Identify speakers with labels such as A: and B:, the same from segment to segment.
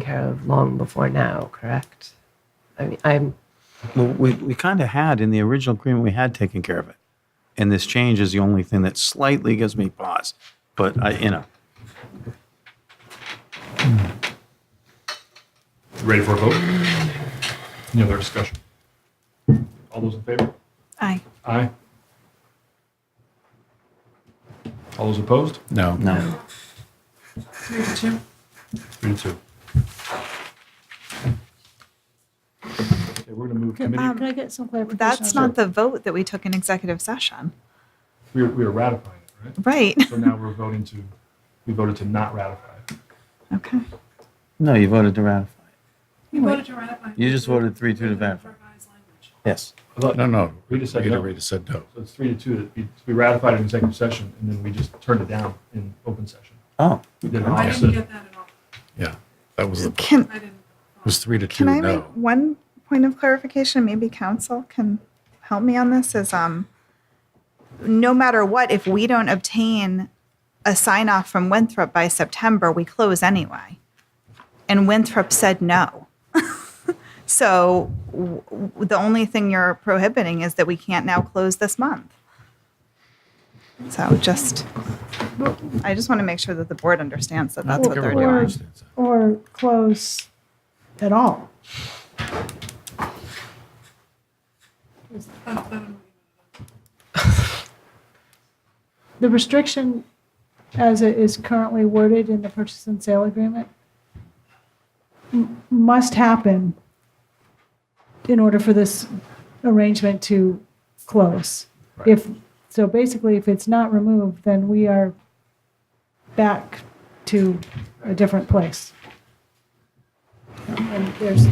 A: care of long before now, correct? I mean, I'm,
B: Well, we, we kind of had in the original agreement, we had taken care of it. And this change is the only thing that slightly gives me pause. But I, you know,
C: Ready for a vote? Any other discussion? All those in favor?
D: Aye.
C: Aye. All those opposed?
E: No.
B: no.
C: Three to two. Okay, we're gonna move
F: Um,
C: committee,
F: Can I get some clarification?
D: That's not the vote that we took in executive session.
C: we were, we were ratifying it, right?
D: Right.
C: So now we're voting to, we voted to not ratify. it.
D: Okay.
B: No, you voted to ratify.
G: You voted to ratify.
B: You just voted 3-2 to ratify.
G: Revised language.
B: Yes.
C: I thought-
E: No, no.
C: Rita said
E: Rita,
C: no.
E: Rita said no.
C: So it's three to two that we, we ratified it in executive session and then we just turned it down in open session.
B: Oh,
C: We did
G: I didn't
C: opposite.
G: get that at all.
E: Yeah. That was the, it
D: Can
G: I didn't.
E: was three to two
D: can I make
E: no.
D: one point of clarification? Maybe council can help me on this. Is um, no matter what, if we don't obtain a sign off from Winthrop by September, we close anyway. And Winthrop said no. so w- w- the only thing you're prohibiting is that we can't now close this month. So just, I just want to make sure that the board understands that that's what they're
E: Everybody
D: doing.
E: understands that.
F: Or close at all.
G: That's- that would've
F: The restriction as it is currently worded in the purchase and sale agreement m- must happen in order for this arrangement to close. If, so basically, if it's not removed, then we are back to a different place. And there's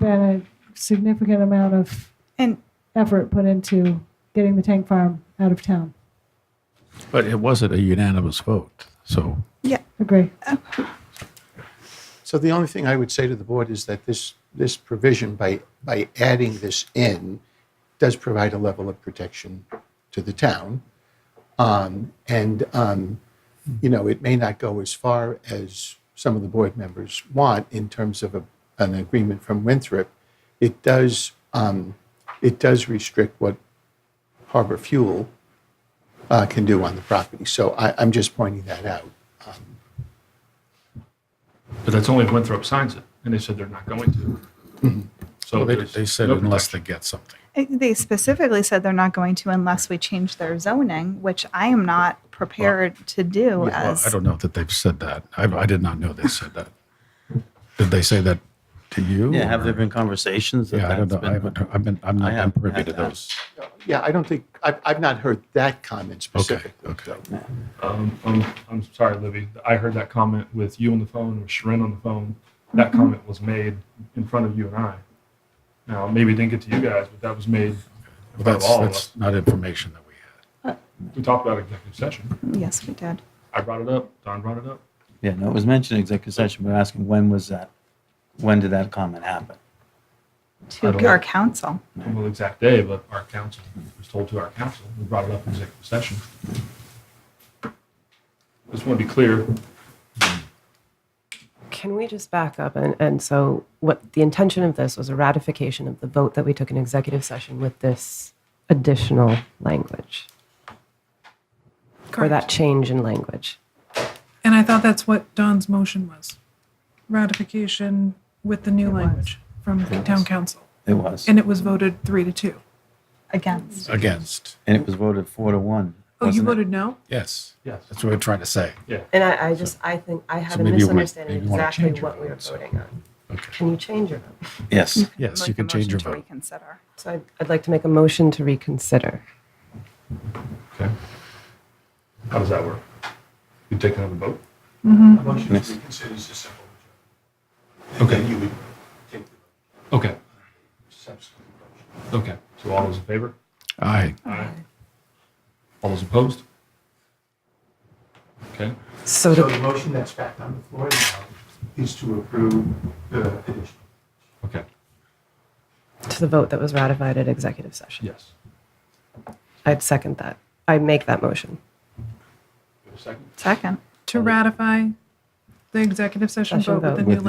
F: been a significant amount of
D: And
F: effort put into getting the tank farm out of town.
E: But it wasn't a unanimous vote. So
D: yeah,
F: Agree.
H: So the only thing I would say to the board is that this, this provision, by, by adding this in, does provide a level of protection to the town. Um, and, um, you know, it may not go as far as some of the board members want in terms of a, an agreement from Winthrop. It does, um, it does restrict what Harbor Fuel uh, can do on the property. So I, I'm just pointing that out.
C: But that's only if Winthrop signs it and they said they're not going to. So
E: Mm-hmm. they,
C: there's
E: they said
C: no
E: unless
C: protection.
E: they get something.
D: They specifically said they're not going to unless we change their zoning, which I am not prepared to do
E: Yeah, well, I
D: as,
E: don't know that they've said that. I, I did not know they said that. Did they say that to you?
B: yeah. Have there
E: or-
B: been conversations? That
E: Yeah, I don't
B: that's
E: know. I haven't, I've been, I'm
B: I
E: not I'm
B: haven't
E: privy
B: had
E: to
B: that.
E: those.
H: Yeah, I don't think, I've, I've not heard that comment
E: Okay,
H: specifically.
E: okay.
C: Um, I'm, I'm sorry, Libby. I heard that comment with you on the phone, with Sharon on the phone. That comment was made in front of you and I. Now, maybe it didn't get to you guys, but that was made in
E: Well,
C: front of
E: that's,
C: all of us.
E: that's not information that we had.
C: We talked about executive session.
D: yes, we did.
C: I brought it up. Don brought it up.
B: Yeah, no, it was mentioned in executive session, but asking when was that? When did that comment happen?
C: I
D: To
C: don't
D: our
C: know.
D: council.
C: I don't know the exact day, but our council was told to our council. We brought it up in executive session. Just want to be clear.
A: can we just back up? And, and so what the intention of this was a ratification of the vote that we took in executive session with this additional language or that
G: Correct.
A: change in language.
G: And I thought that's what Don's motion was. Ratification with the new language from the town council.
B: It was,
G: And it was voted three to two.
D: Against.
E: Against,
B: and it was voted four to one.
G: Oh, you
B: wasn't it?
G: voted no?
E: yes.
C: Yes.
E: That's what we're trying to say.
A: And I, I just, I think I had a
E: maybe you want-
A: misunderstanding
E: maybe
A: of
E: you wanna
A: exactly
E: change your
A: what we were
E: vote, so-
A: voting on.
E: Okay.
A: Can you change your vote?
B: Yes.
E: Yes,
D: Make
E: you
D: a
E: can change
D: motion
E: your
D: to
E: vote.
D: Reconsider.
A: So I'd, I'd like to make a motion to reconsider.
C: Okay. How does that work? You take another vote?
H: Motion to reconsider is a simple.
C: Okay.
H: You would take the
C: Okay.
H: subsequent motion.
C: Okay. So all those in favor?
E: Aye.
C: Aye. All those opposed? Okay.
A: So
H: So
A: the
H: the motion that's back on the floor now is to approve the addition.
C: Okay.
A: to the vote that was ratified at executive session.
C: Yes.
A: I'd second that. I make that motion.
C: You have a second?
D: Second.
G: To ratify the executive session
A: Session
G: vote with
A: vote.
G: the new
B: With